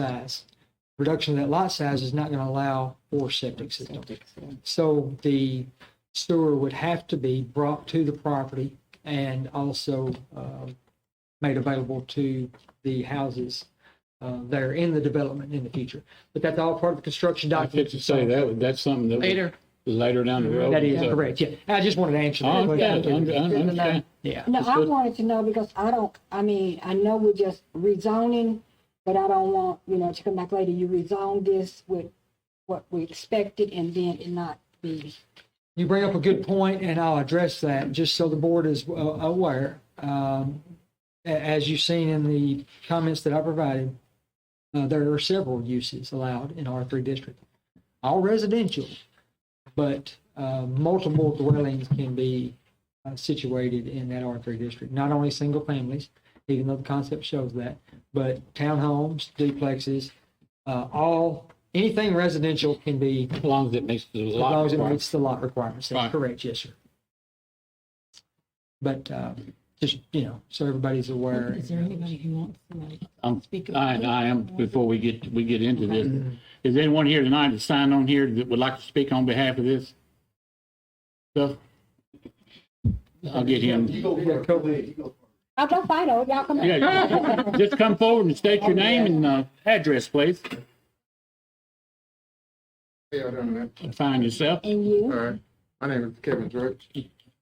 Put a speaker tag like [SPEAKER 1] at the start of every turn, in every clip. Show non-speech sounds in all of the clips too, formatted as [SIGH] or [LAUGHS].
[SPEAKER 1] size. Reduction of that lot size is not going to allow for septic system.
[SPEAKER 2] Septic, yeah.
[SPEAKER 1] So the sewer would have to be brought to the property and also um, made available to the houses uh, that are in the development in the future. But that's all part of the construction
[SPEAKER 3] I was
[SPEAKER 1] document.
[SPEAKER 3] just to say that, would- that's something that. would-
[SPEAKER 2] Later.
[SPEAKER 3] Later down the road.
[SPEAKER 1] That is
[SPEAKER 3] So- oh,
[SPEAKER 1] correct, yeah. I just wanted to answer
[SPEAKER 3] I
[SPEAKER 1] that
[SPEAKER 3] understand, I
[SPEAKER 1] question.
[SPEAKER 3] under- I understand.
[SPEAKER 1] Yeah,
[SPEAKER 2] No,
[SPEAKER 3] It's
[SPEAKER 2] I
[SPEAKER 3] good.
[SPEAKER 2] wanted to know because I don't, I mean, I know we're just rezoning, but I don't want, you know, to come back later, you rezoned this with what we expected and then it not be.
[SPEAKER 1] you bring up a good point, and I'll address that, just so the board is uh, aware. Um, a- As you've seen in the comments that I provided, uh, there are several uses allowed in R3 district. All residential, but uh, multiple dwellings can be uh, situated in that R3 district. Not only single families, even though the concept shows that, but townhomes, duplexes, uh, all, anything residential can be
[SPEAKER 3] As long as it makes the
[SPEAKER 1] as long
[SPEAKER 3] lot.
[SPEAKER 1] as it
[SPEAKER 3] requirement.
[SPEAKER 1] meets the lot requirements, that's
[SPEAKER 3] Right.
[SPEAKER 1] correct, yes, sir. But, uh, just, you know, so everybody's aware.
[SPEAKER 4] Is there anybody who wants to like
[SPEAKER 3] I'm-
[SPEAKER 4] speak
[SPEAKER 3] Um, I,
[SPEAKER 4] about?
[SPEAKER 3] I am, before we get, we get into this,
[SPEAKER 1] Mm-hmm.
[SPEAKER 3] is anyone here tonight that signed on here that would like to speak on behalf of this? stuff? I'll get him.
[SPEAKER 2] I don't fight over, Oh, y'all come back.
[SPEAKER 3] Yeah, Just come forward and state your name and, uh, address, please.
[SPEAKER 5] Hey, I done that.
[SPEAKER 3] Find yourself.
[SPEAKER 2] [LAUGHS] And
[SPEAKER 5] All
[SPEAKER 2] you,
[SPEAKER 5] right. My name is Kevin Drutch,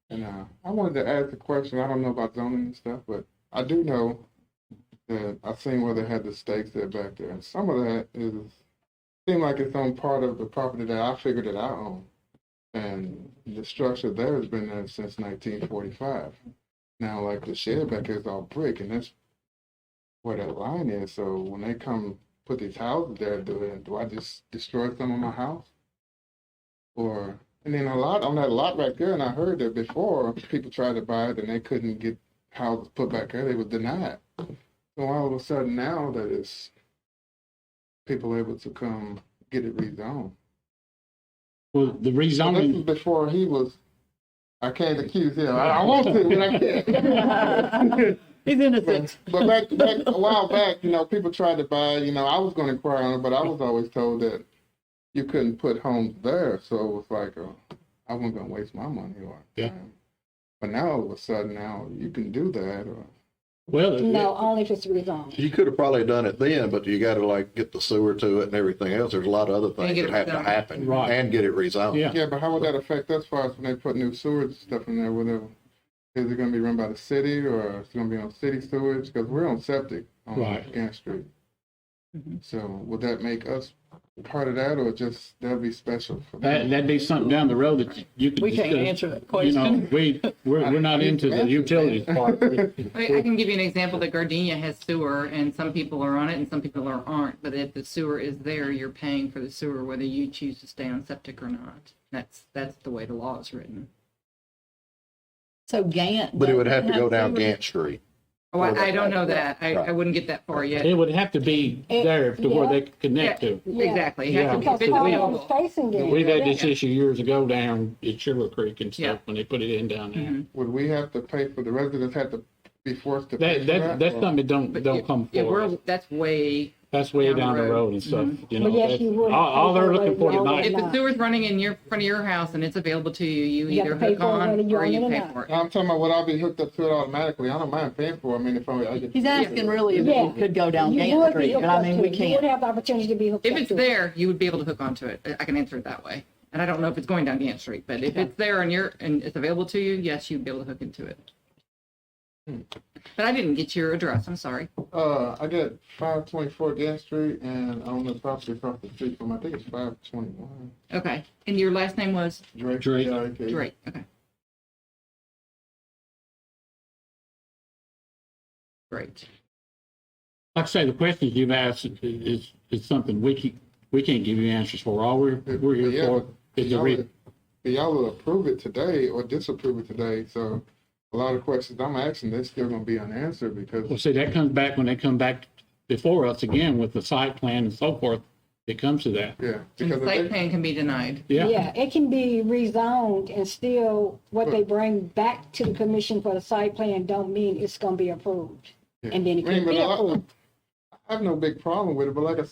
[SPEAKER 5] and uh, I wanted to ask a question. I don't know about zoning and stuff, but I do know that I seen where they had the stakes there back there, and some of that is seem like it's on part of the property that I figured that I own, and the structure there has been there since 1945. Now, like the shed back there is all brick, and that's where that line is. So when they come put these houses there, do it? Do I just destroy some of my house? or and then a lot on that lot right there and i heard that before people tried to buy it and they couldn't get houses put back there they were denied so all of a sudden now that it's people able to come get it rezoned
[SPEAKER 3] Well, the
[SPEAKER 5] so this is
[SPEAKER 3] rezoning,
[SPEAKER 5] before he was i can't accuse him i, I want to but i can't
[SPEAKER 4] [LAUGHS] He's innocent.
[SPEAKER 5] But but back, back a while back, you know, people tried to buy. You know, I was going to inquire on it, but I was always told that you couldn't put homes there. So it was like, oh, I wasn't going to waste my money on. it.
[SPEAKER 3] Yeah.
[SPEAKER 5] But now all of a sudden, now you can do that.
[SPEAKER 2] no,
[SPEAKER 5] Or
[SPEAKER 3] well,
[SPEAKER 2] only if it's rezoned.
[SPEAKER 6] You could have probably done it then, but you gotta like get the sewer to it and everything else. There's a lot of other
[SPEAKER 4] And
[SPEAKER 6] things
[SPEAKER 4] get
[SPEAKER 6] that
[SPEAKER 4] it
[SPEAKER 6] have to
[SPEAKER 4] rezoned.
[SPEAKER 6] happen.
[SPEAKER 3] Right.
[SPEAKER 6] And get it rezoned.
[SPEAKER 3] yeah,
[SPEAKER 5] yeah, but how would that affect us? Far as when they put new sewage stuff in there, whether is it going to be run by the city or it's going to be on city sewage? Because we're on septic on
[SPEAKER 3] Right.
[SPEAKER 5] Gant Street. So would that make us part of that, or just that'd be special? For them?
[SPEAKER 3] that, that'd be something down the road that you- you could.
[SPEAKER 4] We can't
[SPEAKER 3] discuss.
[SPEAKER 4] answer that
[SPEAKER 3] You know,
[SPEAKER 4] question.
[SPEAKER 3] we, we're, we're not into the utilities part.
[SPEAKER 7] I mean, I can give you an example that Gardenia has sewer and some people are on it and some people are aren't. But if the sewer is there, you're paying for the sewer whether you choose to stay on septic or not. That's that's the way the law is written.
[SPEAKER 4] So Gant.
[SPEAKER 6] But it would have
[SPEAKER 4] doesn't
[SPEAKER 6] to go down
[SPEAKER 4] sewer?
[SPEAKER 6] Gant Street.
[SPEAKER 7] Oh, I, I don't know that. I, I
[SPEAKER 6] Right.
[SPEAKER 7] wouldn't get that far yet.
[SPEAKER 3] It would have to be there to where they could connect to.
[SPEAKER 7] Yeah, Exactly. It
[SPEAKER 3] Yeah.
[SPEAKER 7] has to be
[SPEAKER 2] Because
[SPEAKER 3] it's
[SPEAKER 2] all
[SPEAKER 3] illegal.
[SPEAKER 2] of
[SPEAKER 7] available.
[SPEAKER 2] them's facing it.
[SPEAKER 3] We've had this issue years ago down at Sugar Creek and
[SPEAKER 7] Yeah.
[SPEAKER 3] stuff, when they put it in down there.
[SPEAKER 5] Would we have to pay for, the residents have to be forced to
[SPEAKER 3] That,
[SPEAKER 5] pay for
[SPEAKER 3] that,
[SPEAKER 5] that?
[SPEAKER 3] that's
[SPEAKER 5] or-
[SPEAKER 3] something that don't,
[SPEAKER 7] But
[SPEAKER 3] don't
[SPEAKER 7] yeah,
[SPEAKER 3] come
[SPEAKER 7] yeah, we're,
[SPEAKER 3] forward.
[SPEAKER 7] that's way.
[SPEAKER 3] That's way down the road and stuff, you know.
[SPEAKER 2] But yes,
[SPEAKER 3] that's-
[SPEAKER 2] you would.
[SPEAKER 3] All, all they're looking for
[SPEAKER 2] You
[SPEAKER 3] tonight,
[SPEAKER 7] If the
[SPEAKER 2] not.
[SPEAKER 7] sewer's running in your front of your house and it's available to you,
[SPEAKER 2] You
[SPEAKER 7] you
[SPEAKER 2] have to
[SPEAKER 7] either
[SPEAKER 2] pay
[SPEAKER 7] hook
[SPEAKER 2] for it whether
[SPEAKER 7] on
[SPEAKER 2] you
[SPEAKER 7] or
[SPEAKER 2] own it
[SPEAKER 7] you
[SPEAKER 2] or
[SPEAKER 7] pay
[SPEAKER 2] not.
[SPEAKER 7] for it.
[SPEAKER 5] I'm talking about would I be hooked up to it automatically? I don't mind paying for it. I mean, if I, I get.
[SPEAKER 4] He's asking really if
[SPEAKER 2] Yeah.
[SPEAKER 4] it could go down
[SPEAKER 2] You would
[SPEAKER 4] Gant
[SPEAKER 2] be
[SPEAKER 4] Street,
[SPEAKER 2] hooked
[SPEAKER 4] but I
[SPEAKER 2] up to
[SPEAKER 4] mean, we
[SPEAKER 2] it. You would
[SPEAKER 4] can't.
[SPEAKER 2] have the opportunity to be hooked up
[SPEAKER 7] If
[SPEAKER 2] to it.
[SPEAKER 7] it's there, you would be able to hook onto it. I can answer it that way. And I don't know if it's going down Gant Street, but if it's there and you're, and it's available to you, yes, you'd be able to hook into it. But I didn't get your address, I'm sorry.
[SPEAKER 5] Uh, I got five twenty-four Gas Street and I own the property across the street from, I think it's five twenty-one.
[SPEAKER 7] Okay, and your last name was
[SPEAKER 5] Drake.
[SPEAKER 3] Drake.
[SPEAKER 5] Drake.
[SPEAKER 7] Drake, okay. Great.
[SPEAKER 3] like I say, the questions you've asked is- is, is something we can, we can't give you answers for. All we're, we're here
[SPEAKER 5] Yeah.
[SPEAKER 3] for is the
[SPEAKER 5] Y'all
[SPEAKER 3] re,
[SPEAKER 5] would- Y'all will approve it today or disapprove it today, so a lot of questions I'm asking, they're still gonna be unanswered
[SPEAKER 3] Well,
[SPEAKER 5] because.
[SPEAKER 3] see, that comes back when they come back before us again with the site plan and so forth. It comes to that.
[SPEAKER 5] Yeah.
[SPEAKER 7] And
[SPEAKER 5] because
[SPEAKER 7] the
[SPEAKER 5] if
[SPEAKER 7] site
[SPEAKER 5] they-
[SPEAKER 7] plan can be denied.
[SPEAKER 3] Yeah.
[SPEAKER 2] Yeah, it can be rezoned and still what they bring back to the commission for the site plan don't mean it's gonna be approved.
[SPEAKER 5] Yeah.
[SPEAKER 2] And then it
[SPEAKER 5] I mean,
[SPEAKER 2] can
[SPEAKER 5] but
[SPEAKER 2] be
[SPEAKER 5] a lot-
[SPEAKER 2] approved.
[SPEAKER 5] I have no big problem with it, but like I